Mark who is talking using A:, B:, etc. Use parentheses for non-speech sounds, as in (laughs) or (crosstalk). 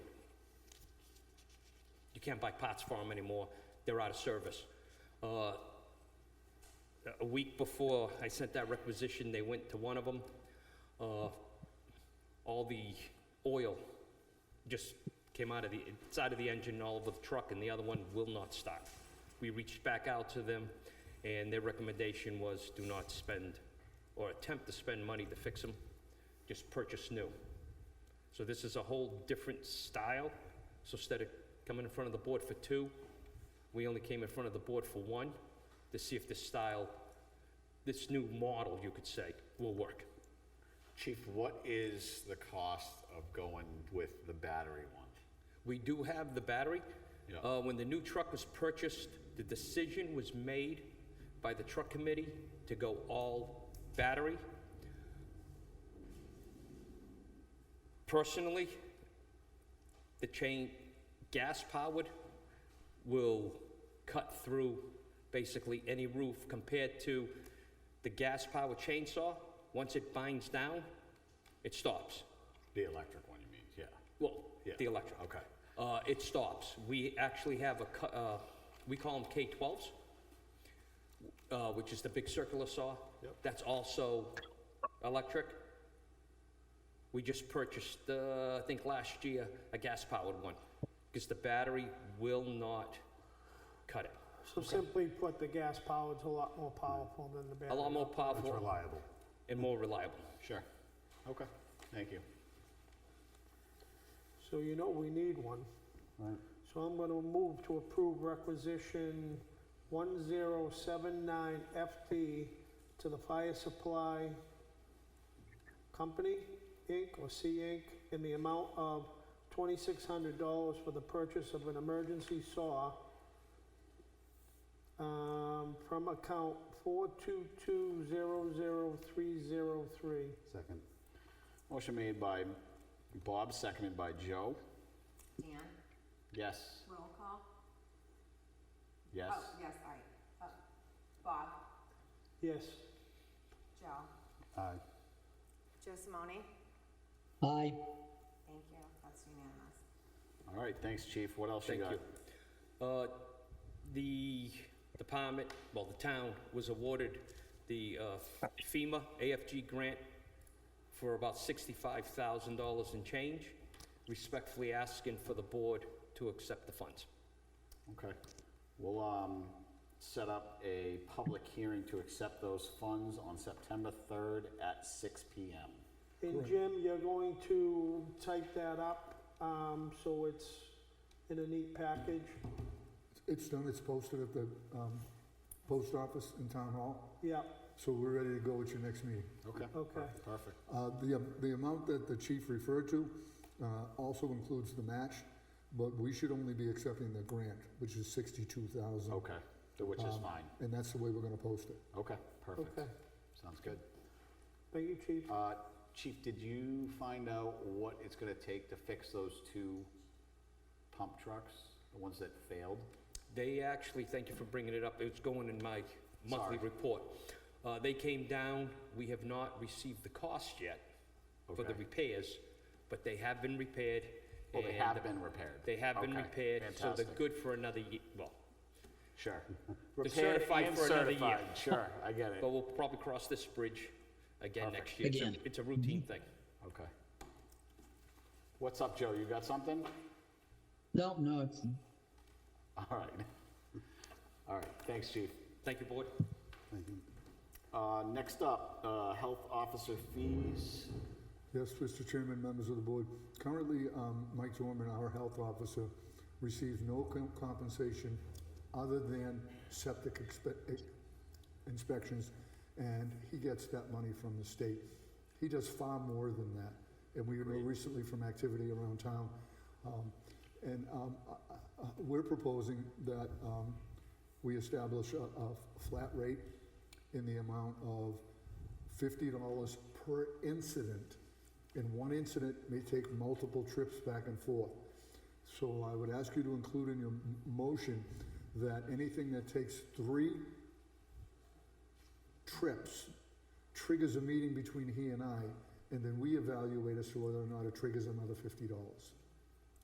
A: You can't buy parts for them anymore. They're out of service. Uh, a week before I sent that requisition, they went to one of them. Uh, all the oil just came out of the, it's out of the engine all over the truck, and the other one will not start. We reached back out to them, and their recommendation was do not spend or attempt to spend money to fix them, just purchase new. So this is a whole different style. So instead of coming in front of the board for two, we only came in front of the board for one to see if this style, this new model, you could say, will work.
B: Chief, what is the cost of going with the battery one?
A: We do have the battery.
B: Yeah.
A: Uh, When the new truck was purchased, the decision was made by the truck committee to go all battery. Personally, the chain gas-powered will cut through basically any roof compared to the gas-powered chainsaw. Once it binds down, it stops.
B: The electric one, you mean? Yeah.
A: Well,
B: Yeah.
A: the electric.
B: Okay.
A: Uh, it stops. We actually have a, cu- uh, we call them K-12s, uh, which is the big circular saw.
B: Yep.
A: That's also electric. We just purchased, uh, I think last year, a gas-powered one, because the battery will not cut it.
C: So simply put, the gas powered's a lot more powerful than the
A: A
C: battery.
A: lot more
B: It's
A: powerful
B: reliable.
A: and more reliable.
B: Sure. Okay, thank you.
C: So you know we need one. So I'm gonna move to approve requisition one zero seven nine FT to the Fire Supply Company, Inc., or C Inc., in the amount of twenty-six hundred dollars for the purchase of an emergency saw um, from account four two two zero zero three zero three.
B: Second. Motion made by Bob, seconded by Joe.
D: Dan,
B: Yes,
D: roll call?
B: yes.
D: Oh, yes, all right. Uh, Bob,
C: Yes,
D: Joe,
B: Aye.
D: Joe Simone?
E: Aye.
D: Thank you, that's unanimous.
B: All right, thanks, chief. What else
A: Thank
B: you got?
A: you. Uh, The department, well, the town was awarded the uh, FEMA AFG grant for about $65,000 in change. Respectfully asking for the board to accept the funds.
B: Okay. We'll, um, set up a public hearing to accept those funds on September third at six P M.
C: And Jim, you're going to type that up, um, so it's in a neat package?
F: It's done, it's posted at the um, post office in Town Hall,
C: Yep,
F: so we're ready to go at your next meeting.
B: Okay,
C: okay,
B: perfect.
F: Uh, The um, the amount that the chief referred to uh, also includes the match, but we should only be accepting the grant, which is 62,000.
B: Okay, so which is fine.
F: And that's the way we're going to post it.
B: Okay, perfect.
C: okay.
B: Sounds good.
C: Thank you, chief.
B: Uh, Chief, did you find out what it's gonna take to fix those two pump trucks, the ones that failed?
A: They actually, thank you for bringing it up, it's going in my monthly
B: Sorry.
A: report. Uh, They came down, we have not received the cost yet for the
B: Okay.
A: repairs, but they have been repaired.
B: Well, they
A: and
B: have
A: the-
B: been repaired.
A: They have been
B: Okay,
A: repaired, so they're
B: fantastic.
A: good for another year, well, (laughs)
B: Sure.
A: certified
B: and
A: for another year.
B: certified, Sure, I get it.
A: (laughs) but we'll probably cross this bridge again next
B: Perfect.
A: year. It's a-
E: Again.
A: It's a routine thing.
B: Okay. What's up, Joe? You got something? (laughs)
E: No, no, it's,
B: All right. All right, thanks, chief.
A: Thank you, board.
B: Uh, next up, uh, health officer fees.
F: Yes, Mr. Chairman, members of the board. Currently, um, Mike Dorman, our health officer, receives no com- compensation other than septic expe- ex- inspections, and he gets that money from the state. He does far more than that, and we know recently from activity around town. um, And um, I- I- I- we're proposing that um, we establish a- a flat rate in the amount of fifty dollars per incident. And one incident may take multiple trips back and forth. So I would ask you to include in your m- motion that anything that takes three trips triggers a meeting between he and I, and then we evaluate as to whether or not it triggers another fifty dollars.